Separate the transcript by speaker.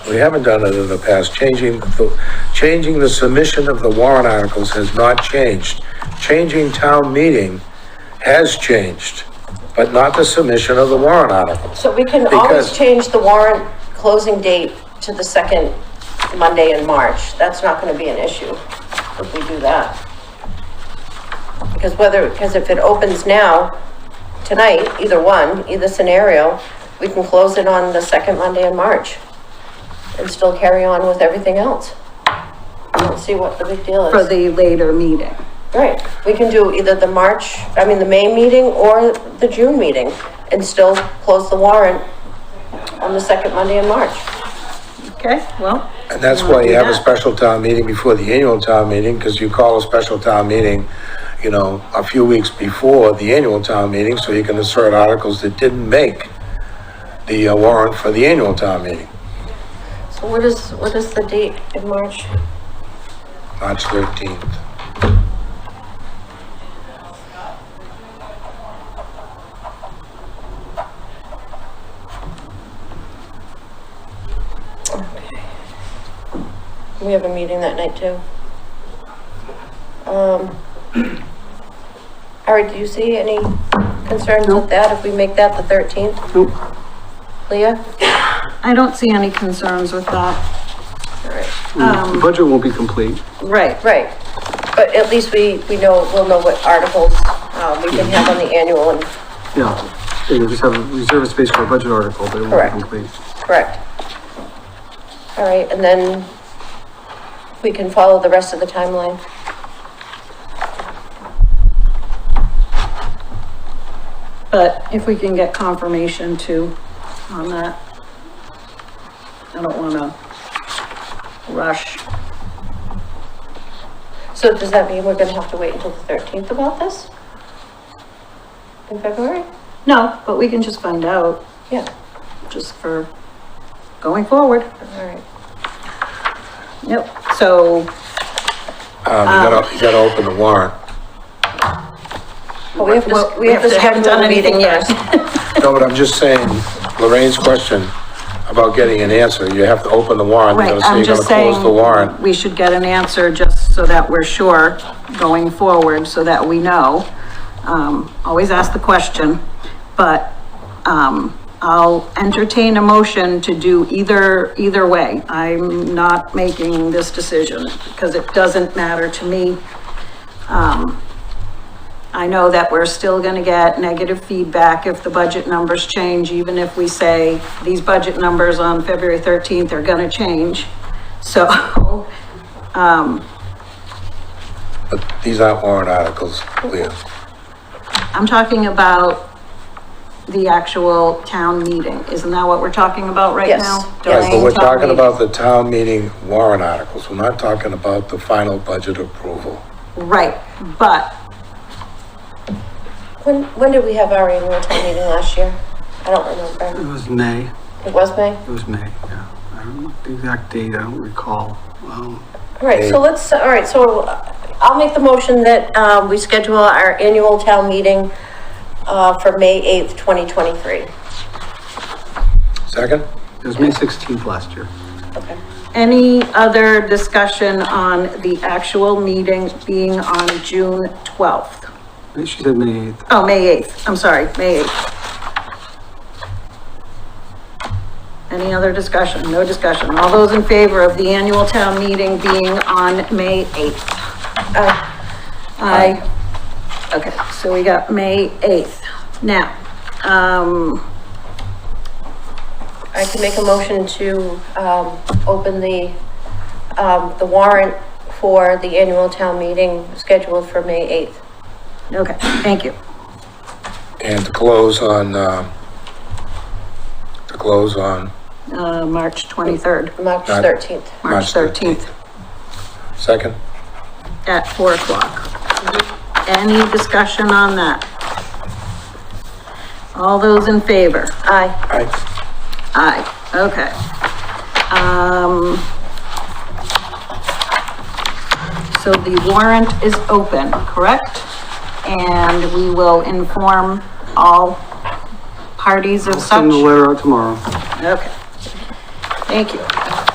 Speaker 1: we haven't done it in the past, changing, the changing the submission of the warrant articles has not changed. Changing town meeting has changed, but not the submission of the warrant articles.
Speaker 2: So we can
Speaker 1: Because-
Speaker 2: always change the warrant closing date to the second Monday in March. That's not gonna be an issue if we do that. Because whether, because if it opens now, tonight, either one, either scenario, we can close it on the second Monday in March and still carry on with everything else. I don't see what the big deal is.
Speaker 3: for the later meeting.
Speaker 2: Right, we can do either the March, I mean, the May meeting or the June meeting and still close the warrant on the second Monday in March.
Speaker 3: Okay, well,
Speaker 1: And that's why you have a
Speaker 3: Yeah.
Speaker 1: special town meeting before the annual town meeting, because you call a special town meeting, you know, a few weeks before the annual town meeting, so you can insert articles that didn't make the uh, warrant for the annual town meeting,
Speaker 2: So what is, what is the date in March?
Speaker 1: March 13th.
Speaker 2: We have a meeting that night too. Um, Ari, do you see any concerns with that if we make that the thirteenth?
Speaker 3: Nope.
Speaker 2: Leah?
Speaker 3: I don't see any concerns with that.
Speaker 2: All right.
Speaker 4: The budget won't be complete.
Speaker 3: Right,
Speaker 2: Right, but at least we, we know, we'll know what articles, uh, we can have on the annual and,
Speaker 4: Yeah, Yeah, you just have reserve space for a budget article, but it won't be
Speaker 2: Correct.
Speaker 4: complete.
Speaker 2: correct? All right, and then we can follow the rest of the timeline.
Speaker 3: but if we can get confirmation too on that. I don't wanna rush.
Speaker 2: So does that mean we're gonna have to wait until the thirteenth about this? In February?
Speaker 3: No, but we can just find out,
Speaker 2: Yeah,
Speaker 3: just for going forward.
Speaker 2: all right.
Speaker 3: Yep, so,
Speaker 1: Um, you gotta, you gotta open the warrant.
Speaker 2: But we have to,
Speaker 3: well,
Speaker 2: we have to.
Speaker 3: haven't
Speaker 2: schedule
Speaker 3: done
Speaker 2: the meeting
Speaker 3: anything yet.
Speaker 2: first.
Speaker 1: No, but I'm just saying, Lorraine's question about getting an answer, you have to open the warrant, you're
Speaker 3: Right,
Speaker 1: gonna say
Speaker 3: I'm
Speaker 1: you're
Speaker 3: just
Speaker 1: gonna close the warrant.
Speaker 3: saying, we should get an answer just so that we're sure going forward, so that we know. Um, always ask the question, but, um, I'll entertain a motion to do either, either way. I'm not making this decision because it doesn't matter to me. I know that we're still gonna get negative feedback if the budget numbers change, even if we say these budget numbers on February thirteenth are gonna change. So,
Speaker 1: But these aren't warrant articles, Leah.
Speaker 3: I'm talking about the actual town meeting. Isn't that what we're talking about right
Speaker 2: Yes,
Speaker 3: now?
Speaker 1: Right, but
Speaker 3: Delaying
Speaker 1: we're
Speaker 3: town
Speaker 1: talking
Speaker 3: meeting.
Speaker 1: about the town meeting warrant articles, we're not talking about the final budget approval.
Speaker 3: Right, but
Speaker 2: When, when did we have our annual town meeting last year? I don't
Speaker 4: It
Speaker 2: remember.
Speaker 4: was May,
Speaker 2: It was May?
Speaker 4: it was May, yeah. I don't know the exact date, I don't recall. Um,
Speaker 2: All right, so let's, all right, so uh, I'll make the motion that, um, we schedule our annual town meeting, uh, for May 8th, 2023.
Speaker 1: Second?
Speaker 4: It was May 16th last year.
Speaker 2: Okay.
Speaker 3: any other discussion on the actual meeting being on June twelfth?
Speaker 4: She said May 8th.
Speaker 3: Oh, May 8th, I'm sorry, May 8th. Any other discussion? No discussion. All those in favor of the annual town meeting being on May 8th?
Speaker 2: Uh,
Speaker 3: Aye. Okay, so we got May 8th. Now, um,
Speaker 2: I can make a motion to, um, open the, um, the warrant for the annual town meeting scheduled for May 8th.
Speaker 3: okay, thank you.
Speaker 1: And to close on, um, to close on,
Speaker 3: Uh, March 23rd,
Speaker 2: March
Speaker 1: Got it.
Speaker 2: 13th.
Speaker 3: March
Speaker 1: March
Speaker 3: 13th
Speaker 1: second?
Speaker 3: at 4 o'clock. Any discussion on that? All those in favor? Aye.
Speaker 1: Aye.
Speaker 3: Aye, okay. Um, so the warrant is open, correct? And we will inform all parties of
Speaker 4: Send the
Speaker 3: such?
Speaker 4: letter out tomorrow.
Speaker 3: Okay. Thank you.